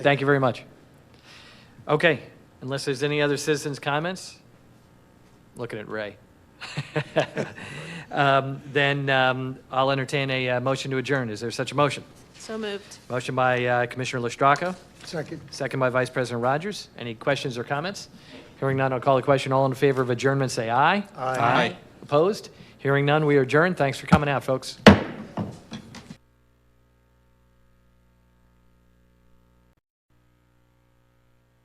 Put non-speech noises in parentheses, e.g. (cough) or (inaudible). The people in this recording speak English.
Thank you very much. Okay, unless there's any other citizens' comments? Looking at Ray. (laughs) Um, Then um, I'll entertain a uh, motion to adjourn. Is there such a motion? So moved. Motion by uh, Commissioner Lestrako, Second. second by Vice President Rogers. Any questions or comments? Hearing none, I'll call the question. All in favor of adjournment, say aye. Aye. Opposed? Hearing none, we adjourn. Thanks for coming out, folks.